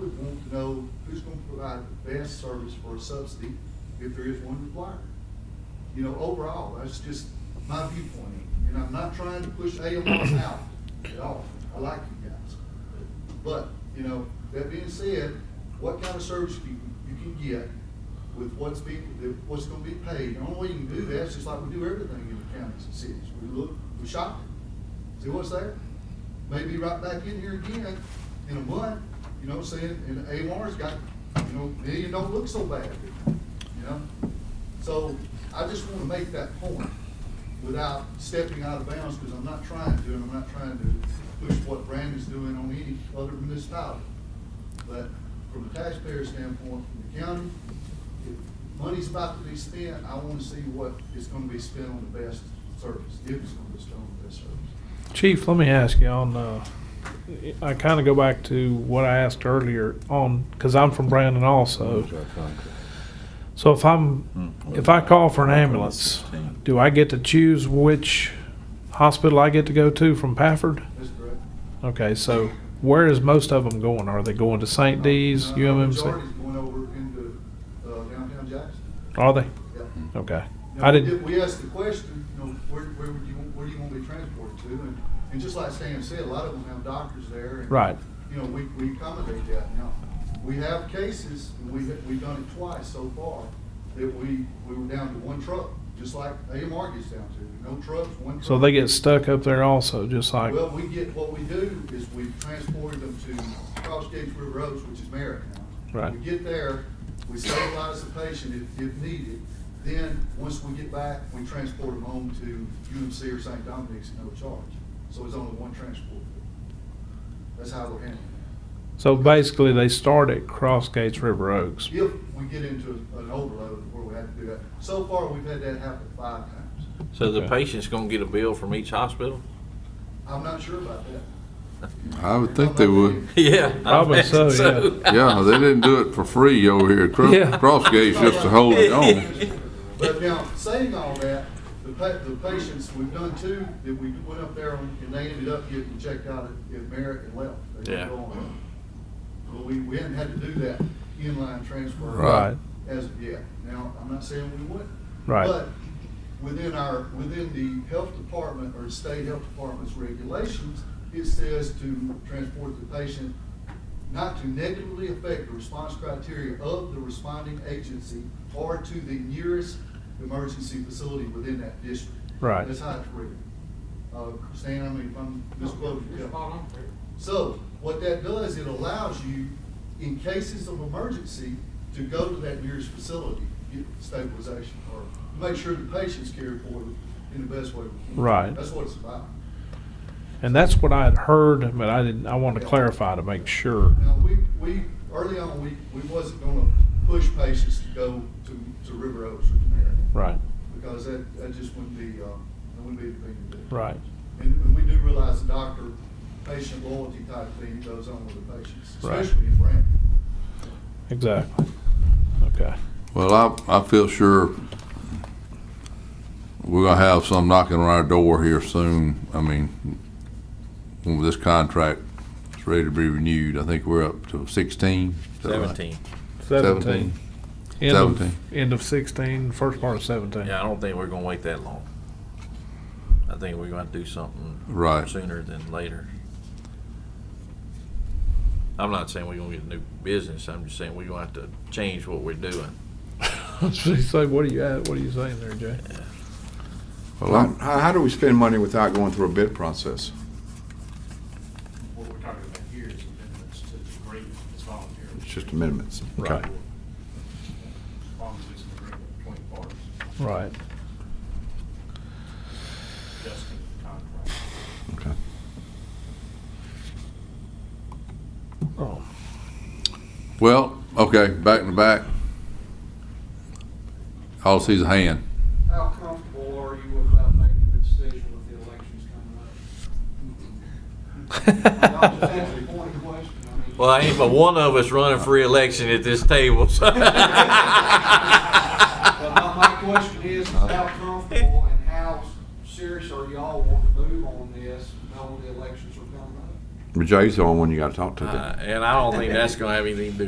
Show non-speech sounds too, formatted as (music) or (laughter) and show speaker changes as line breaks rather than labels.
to know who's gonna provide the best service for a subsidy, if there is one required. You know, overall, that's just my viewpoint, and I'm not trying to push AMRs out at all, I like you guys. But, you know, that being said, what kind of service you, you can get with what's being, what's gonna be paid, the only way you can do that is just like we do everything in the counties and cities, we look, we shop it, see what's there. Maybe right back in here again in a month, you know, saying, and AMR's got, you know, million don't look so bad, you know? So I just wanna make that point without stepping out of bounds, because I'm not trying to, and I'm not trying to push what Brandon's doing on any other municipality. But from a taxpayer standpoint, from the county, if money's about to be spent, I wanna see what is gonna be spent on the best service, if it's gonna be spent on the best service.
Chief, let me ask you on, uh, I kind of go back to what I asked earlier on, because I'm from Brandon also. So if I'm, if I call for an ambulance, do I get to choose which hospital I get to go to from Pafford?
That's correct.
Okay, so where is most of them going? Are they going to St. D's,
No, no,
UMMC?
Uh, Majority's going over into uh, downtown Jackson.
Are they?
Yeah.
Okay.
Now,
Oh. I
we
didn't,
did- We asked the question, you know, where, where would you, where do you want to be transported to? And, and just like Sam said, a lot of them have doctors there. and,
Right.
You know, we, we accommodate that. Now, we have cases, and we, we've done it twice so far, that we, we were down to one truck, just like AMR gets down to, no trucks, one truck.
so they get stuck up there also, just like,
Well, we get, what we do is we transport them to Cross Gates River Oaks, which is Merritt now.
Right.
We get there, we stabilize the patient if, if needed, then, once we get back, we transport them home to UMC or St. Dominic's at no charge. So it's only one transport. That's how we're handling
so basically they start at Cross Gates River Oaks.
it. If we get into an overload where we have to do that, so far, we've had that happen five times.
So the
Okay.
patient's gonna get a bill from each
(laughs)
hospital?
I'm not sure about that.
I would think they would.
Yeah. I
Probably so,
imagine
Yeah, they didn't do it for free over here at
Yeah.
Cross, Cross Gates just to hold it on.
But now, saying all that, the pa- the patients, we've done two, that we went up there and and they ended up getting checked out at, at Merritt and left. They didn't
Yeah.
go on. But we, we hadn't had to do that inline transfer.
Right.
As of yet. Now, I'm not saying we wouldn't.
Right.
But within our, within the health department or state health department's regulations, it says to transport the patient not to negatively affect the response criteria of the responding agency or to the nearest emergency facility within that district.
Right.
That's how it's written. Uh, Stan, I mean, if I'm misquoting. yeah. So what that does, it allows you, in cases of emergency, to go to that nearest facility, get stabilization, or make sure the patient's cared for in the best way we can.
Right.
That's what it's about.
And that's what I had heard, but I didn't, I wanted to clarify to make sure.
Now, we, we, early on, we, we wasn't gonna push patients to go to, to River Oaks or to Marion.
Right,
Because that, that just wouldn't be, um, that wouldn't be the thing to do.
right.
And, and we do realize the doctor, patient loyalty type thing goes on with the patients,
Right.
especially in Brandon.
Exactly. Okay.
Well, I, I feel sure we're gonna have some knocking on our door here soon. I mean, when this contract is ready to be renewed, I think we're up to sixteen. Is that right?
Seventeen.
Seventeen.
End of-
17.
End of sixteen, first part of seventeen.
Yeah, I don't think we're gonna wait that long. I think we're gonna have to do something.
Right.
Sooner than later. I'm not saying we're gonna get new business, I'm just saying we're gonna have to change what we're doing.
(laughs) So what are you, at- what are you saying there, Jay?
Well,
Well,
I'm-
How, how do we spend money without going through a bid process?
What we're talking about here is amendments to the agreement, it's voluntary.
It's just amendments.
Right.
As long as it's an agreement between parties,
Right.
adjusting the contract.
Okay.
Oh,
well, okay, back to back. All I see is a hand.
How comfortable are you about making a decision with the elections coming up? I'll just
Oh.
(laughs) ask you one question. I mean-
Well, I ain't but one of us running for reelection at this table, so.
(laughs) But my, my question is, how comfortable and how serious are y'all wanting to move on this, knowing the elections are coming up?
But Jay's the only one you gotta talk to.
Uh, And I don't think that's gonna have anything to do